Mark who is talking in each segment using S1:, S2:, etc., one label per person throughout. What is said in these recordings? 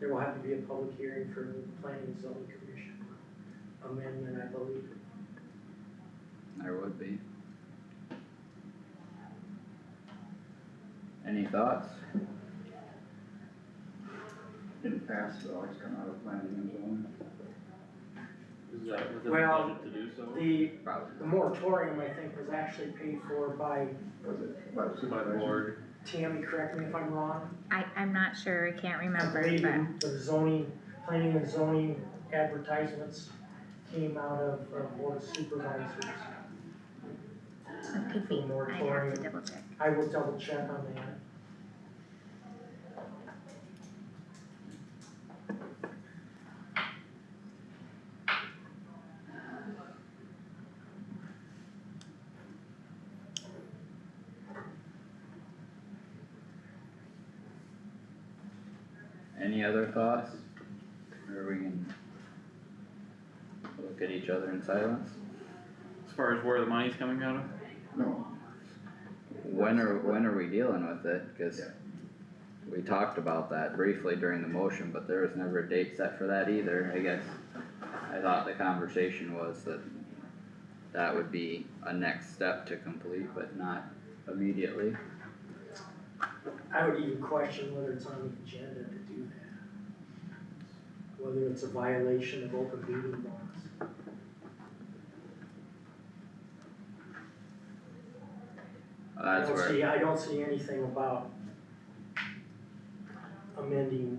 S1: there will have to be a public hearing for the planning and zoning commission amendment, I believe.
S2: There would be. Any thoughts?
S3: In the past, it always come out of planning and zoning.
S4: Is that within the
S1: Well,
S4: budget to do so?
S1: The,
S2: Probably.
S1: the moratorium, I think, was actually paid for by,
S3: Was it by the
S4: By the
S3: supervisor?
S4: board,
S1: Tammy, correct me if I'm wrong.
S5: I, I'm not sure, I can't remember,
S1: I
S5: but
S1: believe the zoning, planning and zoning advertisements came out of uh, board of supervisors.
S5: it could be, I have to double check.
S1: I will double check on that.
S2: Any other thoughts? Or we can look at each other in silence?
S4: as far as where the money's coming out of?
S3: No,
S2: When are, when are we dealing with it? Cause
S3: Yeah.
S2: we talked about that briefly during the motion, but there was never a date set for that either, I guess. I thought the conversation was that that would be a next step to complete, but not immediately.
S1: I would even question whether it's on the agenda to do that. Whether it's a violation of open meeting laws. I
S2: That's
S1: don't
S2: where,
S1: see- I don't see anything about amending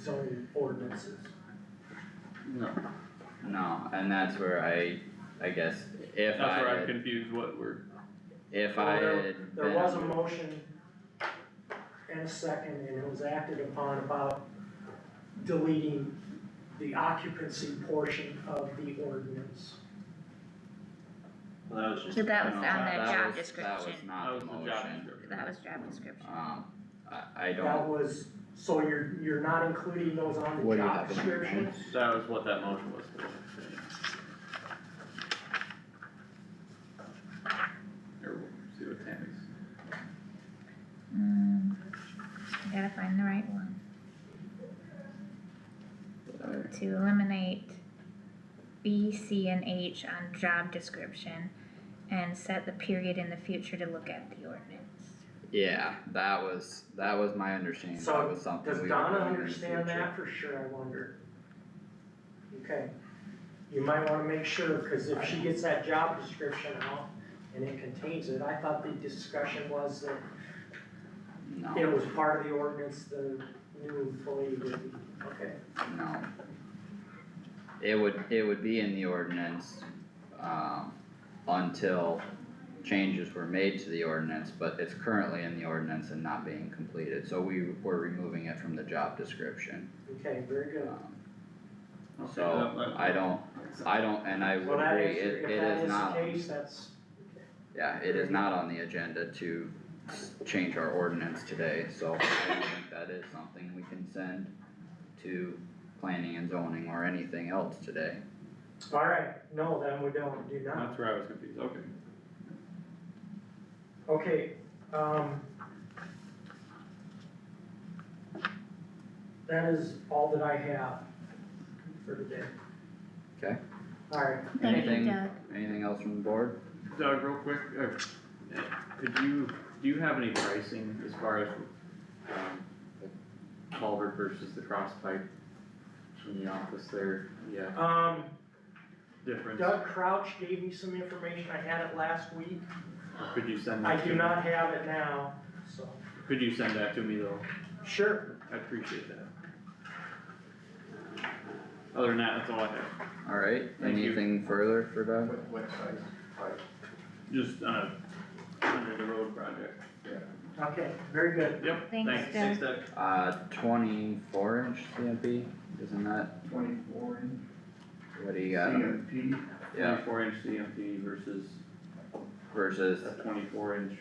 S1: zoning ordinances.
S4: No.
S2: no, and that's where I, I guess, if
S4: That's
S2: I
S4: where I'm
S2: had-
S4: confused what we're,
S2: if I
S1: Well, there-
S2: had
S1: There was a
S2: been-
S1: motion and a second, and it was acted upon about deleting the occupancy portion of the ordinance.
S6: Well, that was just.
S5: But that was
S2: no,
S5: on
S2: that-
S5: the
S2: that
S5: job
S2: was- That was
S4: that
S5: description,
S2: not
S4: was
S2: the
S4: the job
S2: motion,
S4: description.
S5: that was job description.
S2: um, I, I
S1: That
S2: don't,
S1: was, so you're, you're not including those on
S2: What
S1: the
S2: do you
S1: job
S2: have in your
S1: description?
S2: notes?
S4: That was what that motion was for. Here, we'll see what Tammy's.
S5: Mm, I gotta find the right one.
S2: Alright.
S5: To eliminate B, C, and H on job description and set the period in the future to look at the ordinance.
S2: yeah, that was, that was my understanding,
S1: So,
S2: that was something
S1: Does
S2: we were
S1: Donna
S2: doing in the
S1: understand
S2: future.
S1: that for sure, I wonder? Okay, you might wanna make sure, cause if she gets that job description out and it contains it, I thought the discussion was that It
S2: No,
S1: was part of the ordinance, the new employee would be, okay.
S2: no. It would, it would be in the ordinance, um, until changes were made to the ordinance, but it's currently in the ordinance and not being completed, so we were removing it from the job description.
S1: Okay, very good.
S2: Um,
S4: Okay, that-
S2: So,
S4: that-
S2: I don't, I don't, and I
S1: Well,
S2: would
S1: that
S2: agree,
S1: is,
S2: it,
S1: if
S2: it
S1: that
S2: is
S1: is the
S2: not,
S1: case, that's,
S2: yeah, it is not on the agenda to s- change our ordinance today, so I think that is something we can send to planning and zoning or anything else today.
S1: all right, no, then we don't, do not.
S4: That's where I was confused, okay.
S1: Okay, um. That is all that I have for today.
S2: Okay.
S1: All right,
S5: Thank you,
S2: Anything-
S5: Doug.
S2: Anything else from the board?
S4: Doug, real quick, or, uh, could you, do you have any pricing as far as, um, the culvert versus the cross pipe in the office there? Yeah,
S1: um,
S4: difference, or
S1: Doug Crouch gave me some information, I had it last week,
S4: could you send
S1: I
S4: that to?
S1: do not have it now, so.
S4: Could you send that to me though?
S1: Sure.
S4: I appreciate that. Other than that, that's all I have,
S2: Alright,
S4: Thank you.
S2: anything further for Doug?
S3: what, what size pipe,
S4: just, uh, under the road project.
S3: yeah.
S1: Okay, very good.
S4: Yep,
S5: Thanks,
S4: thanks,
S5: Doug.
S4: thanks Doug.
S2: Uh, twenty-four inch CMP, isn't that,
S3: twenty-four inch
S2: what do you got?
S3: CMP.
S2: Yeah,
S4: Twenty-four inch CMP versus a
S2: versus
S4: twenty-four inch,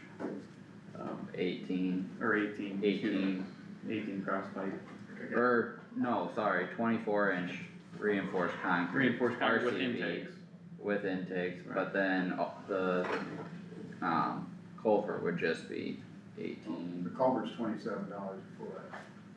S4: um,
S2: eighteen,
S4: or eighteen. excuse me,
S2: eighteen,
S4: Eighteen cross pipe.
S2: or, no, sorry, twenty-four inch reinforced concrete.
S4: Reinforced concrete with
S2: RCV.
S4: intakes.
S2: with intakes, but then uh, the, um, culvert would just be
S3: The
S2: eighteen.
S3: culvert's twenty-seven dollars a foot.